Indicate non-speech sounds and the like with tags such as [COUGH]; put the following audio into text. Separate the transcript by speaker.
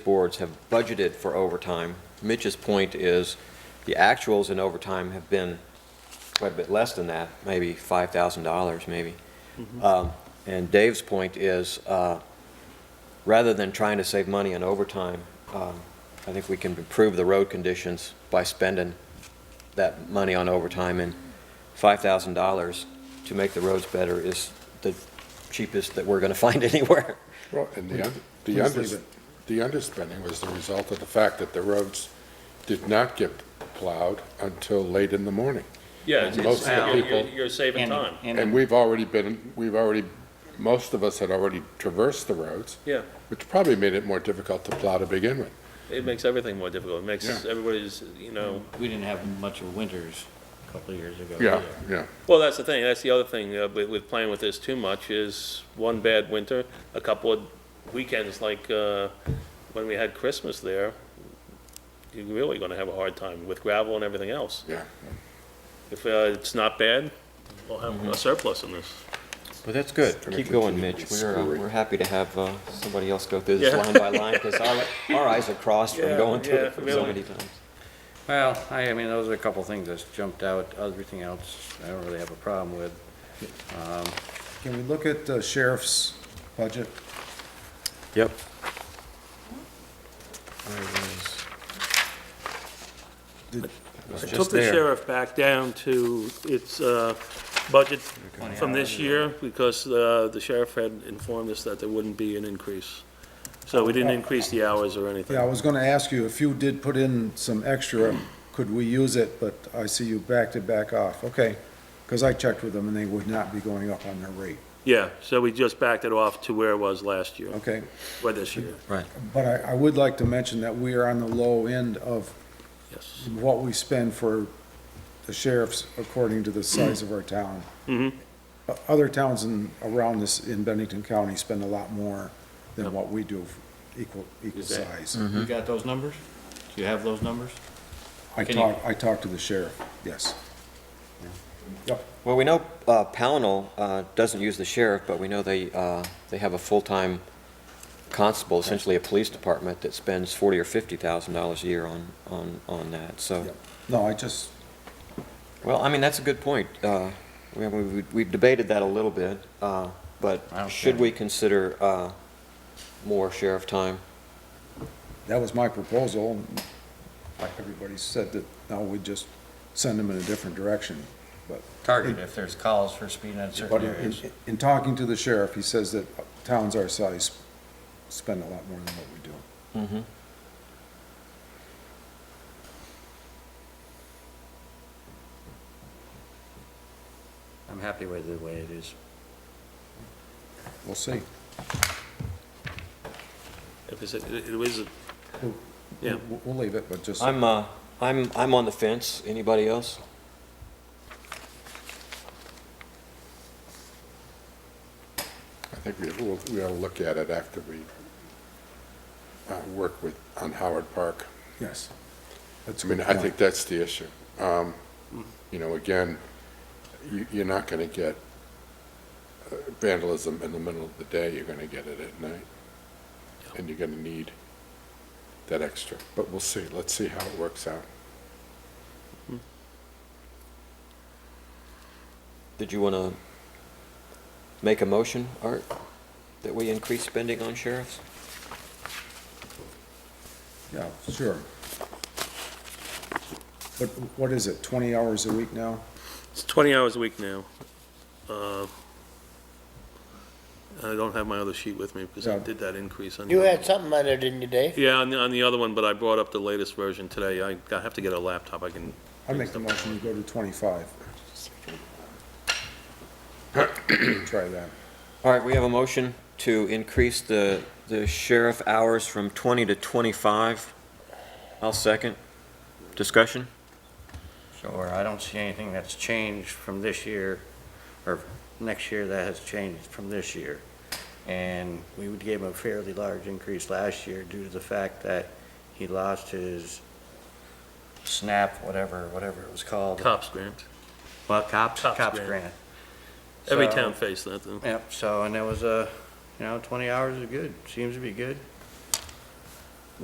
Speaker 1: boards have budgeted for overtime. Mitch's point is, the actuals in overtime have been quite a bit less than that, maybe $5,000, maybe. Um, And Dave's point is, uh, rather than trying to save money on overtime, um, I think we can improve the road conditions by spending that money on overtime, and $5,000 to make the roads better is the cheapest that we're going to [LAUGHS] find anywhere.
Speaker 2: Well, and the, un- the
Speaker 3: Please
Speaker 2: under,
Speaker 3: leave it.
Speaker 2: the underspending was the result of the fact that the roads did not get plowed until late in the morning.
Speaker 4: Yeah, it's,
Speaker 2: Most
Speaker 4: it's,
Speaker 2: of the
Speaker 4: you're- you're,
Speaker 2: people-
Speaker 4: you're saving time.
Speaker 2: And we've already been, we've already, most of us had already traversed the roads,
Speaker 4: Yeah,
Speaker 2: which probably made it more difficult to plow to begin with.
Speaker 4: it makes everything more difficult. It makes
Speaker 2: Yeah.
Speaker 4: everybody's, you know,
Speaker 3: We didn't have much of winters a couple of years ago.
Speaker 2: Yeah,
Speaker 3: either.
Speaker 2: yeah.
Speaker 4: well, that's the thing. That's the other thing uh, with, with playing with this too much is one bad winter, a couple of weekends like, uh, when we had Christmas there, you're really gonna have a hard time with gravel and everything else.
Speaker 2: Yeah.
Speaker 4: If, uh, it's not bad, we'll have
Speaker 2: Mm-hmm.
Speaker 4: a surplus in this.
Speaker 1: But that's good.
Speaker 2: Kinda
Speaker 1: Keep going,
Speaker 2: continue
Speaker 1: Mitch.
Speaker 2: to be
Speaker 1: We're, uh,
Speaker 2: screwy.
Speaker 1: we're happy to have uh, somebody else go through this
Speaker 4: Yeah.
Speaker 1: line by line, because our,
Speaker 4: [LAUGHS]
Speaker 1: our eyes are crossed from
Speaker 4: Yeah,
Speaker 1: going through
Speaker 4: yeah,
Speaker 1: it for so
Speaker 4: really.
Speaker 1: many times.
Speaker 5: Well, I, I mean, those are a couple things that's jumped out. Everything else, I don't really have a problem with.
Speaker 6: Can we look at the sheriff's budget?
Speaker 1: Yep.
Speaker 7: I took the sheriff back down to its uh, budget from this year, because uh, the sheriff had informed us that there wouldn't be an increase. So we didn't increase the hours or anything.
Speaker 6: Yeah, I was gonna ask you, if you did put in some extra, could we use it, but I see you backed it back off, okay. Cause I checked with them and they would not be going up on their rate,
Speaker 7: Yeah, so we just backed it off to where it was last year,
Speaker 6: okay?
Speaker 7: or this year,
Speaker 6: But I, I would like to mention that we are on the low end of
Speaker 7: yes.
Speaker 6: what we spend for the sheriffs according to the size of our town.
Speaker 7: Mhm.
Speaker 6: O- Other towns in, around this, in Bennington County spend a lot more than what we do, equal, equal
Speaker 3: Is that-
Speaker 6: size.
Speaker 3: You got those numbers? Do you have those numbers?
Speaker 6: I
Speaker 3: Can you-
Speaker 6: talked, I talked to the sheriff, yes. Yep,
Speaker 1: Well, we know uh, Pownell uh, doesn't use the sheriff, but we know they, uh, they have a full-time constable, essentially a police department, that spends forty or fifty thousand dollars a year on, on, on that, so.
Speaker 6: yep. No, I just,
Speaker 1: Well, I mean, that's a good point. Uh, we- we- We've debated that a little bit, uh, but
Speaker 3: don't
Speaker 1: should
Speaker 3: care.
Speaker 1: we consider uh, more sheriff time?
Speaker 6: that was my proposal. and Everybody said that, no, we just send them in a different direction.
Speaker 3: Target if there's calls for speeding in
Speaker 6: But
Speaker 3: certain
Speaker 6: in,
Speaker 3: areas.
Speaker 6: in talking to the sheriff, he says that towns our size spend a lot more than what we do.
Speaker 1: Mm-hmm.
Speaker 3: I'm happy with the way it is.
Speaker 6: We'll see.
Speaker 4: If it's, it it was, Yeah.
Speaker 6: We'll, we'll leave it, but just,
Speaker 1: I'm, uh, I'm, I'm on the fence. Anybody else?
Speaker 2: I think we, we'll, we ought to look at it after we uh, work with, on Howard Park.
Speaker 6: yes. That's
Speaker 2: I
Speaker 6: a
Speaker 2: mean,
Speaker 6: good
Speaker 2: I
Speaker 6: point.
Speaker 2: think that's the issue. Um, You know, again, you, you're not gonna get uh, vandalism in the middle of the day, you're gonna get it at night. And you're gonna need that extra, but we'll see, let's see how it works out.
Speaker 1: Did you want to make a motion, Art, that we increase spending on sheriffs?
Speaker 6: Yeah, sure. But what is it, twenty hours a week now?
Speaker 4: it's 20 hours a week now. Uh, I don't have my other sheet with me, because I
Speaker 6: Yeah.
Speaker 4: did that increase on.
Speaker 8: You
Speaker 4: the-
Speaker 8: had something on it, didn't you, Dave?
Speaker 4: Yeah, on the, on the other one, but I brought up the latest version today. I, I have to get a laptop, I can,
Speaker 6: I make the motion to go to twenty-five. Try that.
Speaker 1: All right, we have a motion to increase the, the sheriff hours from 20 to 25. I'll second. Discussion?
Speaker 3: Sure, I don't see anything that's changed from this year, or next year that has changed from this year. And we would give him a fairly large increase last year due to the fact that he lost his SNAP, whatever, whatever it was called.
Speaker 4: cops grant.
Speaker 3: Well, cops,
Speaker 4: Cops
Speaker 3: cops
Speaker 4: grant.
Speaker 3: grant.
Speaker 4: Every
Speaker 3: So-
Speaker 4: town faced that, though.
Speaker 3: uh, Yep, so, and that was a, you know, twenty hours is good, seems to be good.